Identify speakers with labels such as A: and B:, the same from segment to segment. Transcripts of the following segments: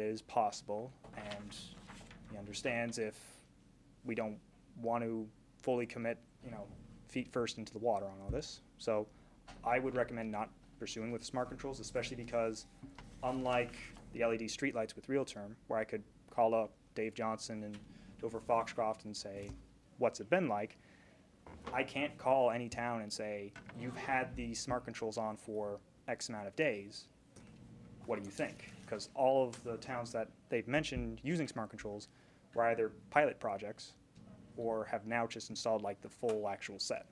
A: is possible, and he understands if we don't want to fully commit, you know, feet first into the water on all this. So I would recommend not pursuing with smart controls, especially because unlike the LED streetlights with real term, where I could call up Dave Johnson and Dover Foxcroft and say, what's it been like? I can't call any town and say, you've had these smart controls on for X amount of days. What do you think? Because all of the towns that they've mentioned using smart controls were either pilot projects or have now just installed like the full actual set.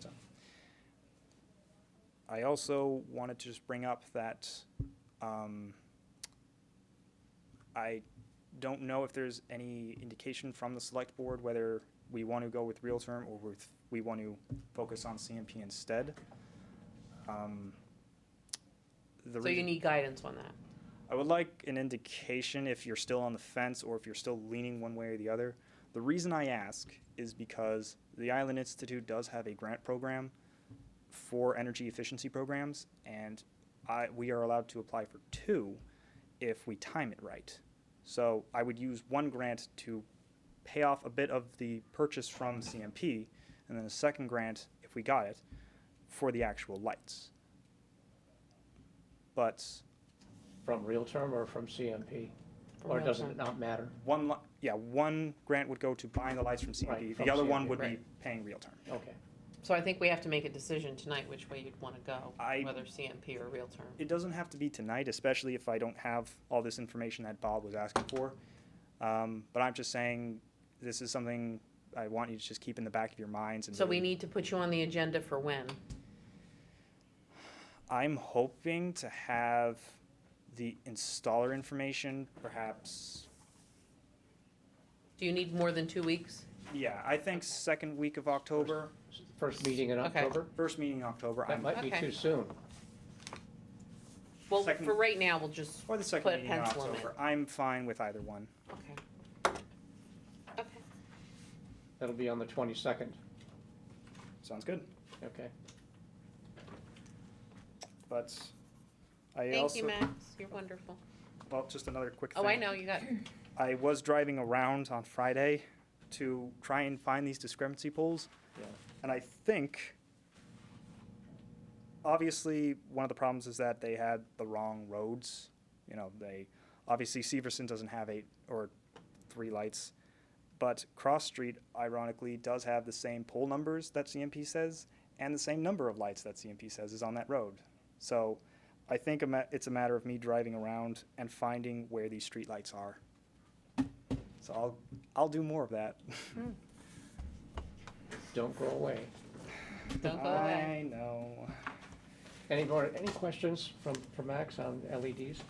A: So. I also wanted to just bring up that um, I don't know if there's any indication from the select board whether we want to go with real term or with, we want to focus on CMP instead. Um, the
B: So you
A: reason-
B: need guidance on that.
A: I would like an indication if you're still on the fence or if you're still leaning one way or the other. The reason I ask is because the Island Institute does have a grant program for energy efficiency programs, and I, we are allowed to apply for two if we time it right. So I would use one grant to pay off a bit of the purchase from CMP, and then a second grant, if we got it, for the actual lights. But
C: From real term or from CMP?
B: from
C: Or
B: real
C: does it
B: time.
C: not matter?
A: One, li- yeah, one grant would go to buying the lights from
C: Right,
A: CMP,
C: from
A: the other one
C: CMP,
A: would be
B: right.
A: paying real term.
C: Okay.
B: So I think we have to make a decision tonight which way you'd want to go,
A: I-
B: whether CMP or real term.
A: It doesn't have to be tonight, especially if I don't have all this information that Bob was asking for. Um, But I'm just saying, this is something I want you to just keep in the back of your minds and.
B: So we
A: really-
B: need to put you on the agenda for when?
A: I'm hoping to have the installer information, perhaps,
B: Do you need more than two weeks?
A: yeah, I think second week of October,
C: First meeting in
B: Okay.
C: October?
A: first meeting in October,
C: That
A: I'm,
C: might be
B: Okay.
C: too soon.
B: Well,
A: Second-
B: for right now, we'll just,
A: or the
B: Put a
A: second meeting in
B: pencil in
A: October. I'm fine with either one.
B: okay. Okay,
C: That'll be on the twenty-second,
A: Sounds good.
C: okay?
A: But I
B: thank you,
A: also,
B: Max, you're wonderful.
A: well, just another quick thing.
B: Oh, I know, you got,
A: I was driving around on Friday to try and find these discrepancy polls.
C: Yeah.
A: And I think, obviously, one of the problems is that they had the wrong roads. You know, they, obviously Severson doesn't have eight or three lights. But Cross Street ironically does have the same pole numbers that CMP says and the same number of lights that CMP says is on that road. So I think a ma- it's a matter of me driving around and finding where these street lights are. So I'll, I'll do more of that.
B: Hmm,
C: Don't go away.
B: don't go away.
A: I know.
C: Any more, any questions from, from Max on E LEDs?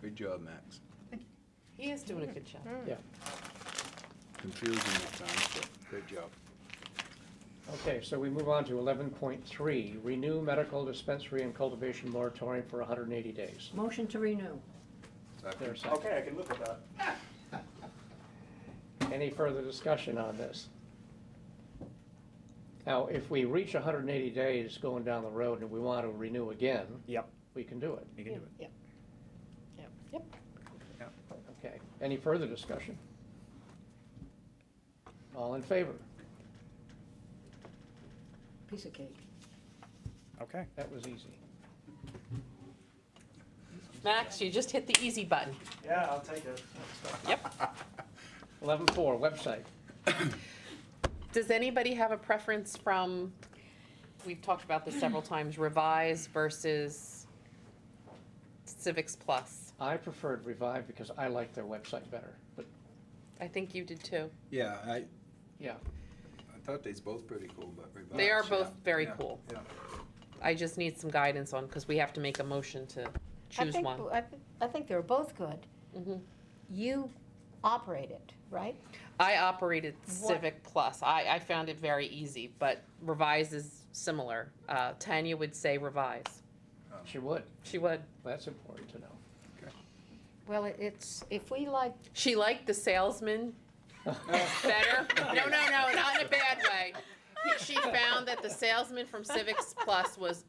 D: Good job, Max.
B: He is doing a good job.
C: Yeah,
D: Confusing at times, but good job.
C: okay, so we move on to eleven point three, renew medical dispensary and cultivation moratorium for hundred and eighty days.
E: Motion to renew.
C: There's
D: Second.
C: a second.
A: I can live with that.
C: Any further discussion on this? Now, if we reach hundred and eighty days going down the road and we want to renew again,
A: Yep,
C: we can do it.
A: you can do it.
E: Yep.
C: Okay, any further discussion? All in favor?
E: Piece of cake.
A: Okay.
C: That was easy.
B: Max, you just hit the easy button.
A: Yeah, I'll take it.
C: Eleven four, website.
B: Does anybody have a preference from, we've talked about this several times, revise versus Civics Plus?
C: I preferred Revive because I like their website better, but,
B: I think you did too.
D: Yeah, I, I
C: yeah.
D: thought they's both pretty cool, but revised.
B: They are
D: Uh, yeah.
B: both very
D: Yeah,
B: cool.
D: Yeah.
B: I just need some guidance on, because we have to make a motion to
E: I
B: choose
E: think-
B: one.
E: I thi- I think they're both good.
B: Mhm.
E: You operate it, right?
B: I operated
E: What-
B: Civic Plus. I, I found it very easy, but revise is similar. Uh, Tanya would say revise.
C: She would,
B: She would.
C: that's important to know.
E: Well, it- it's, if we like,
B: She liked the salesman better. No, no, no, not in a bad way. She found that the salesman from Civics Plus was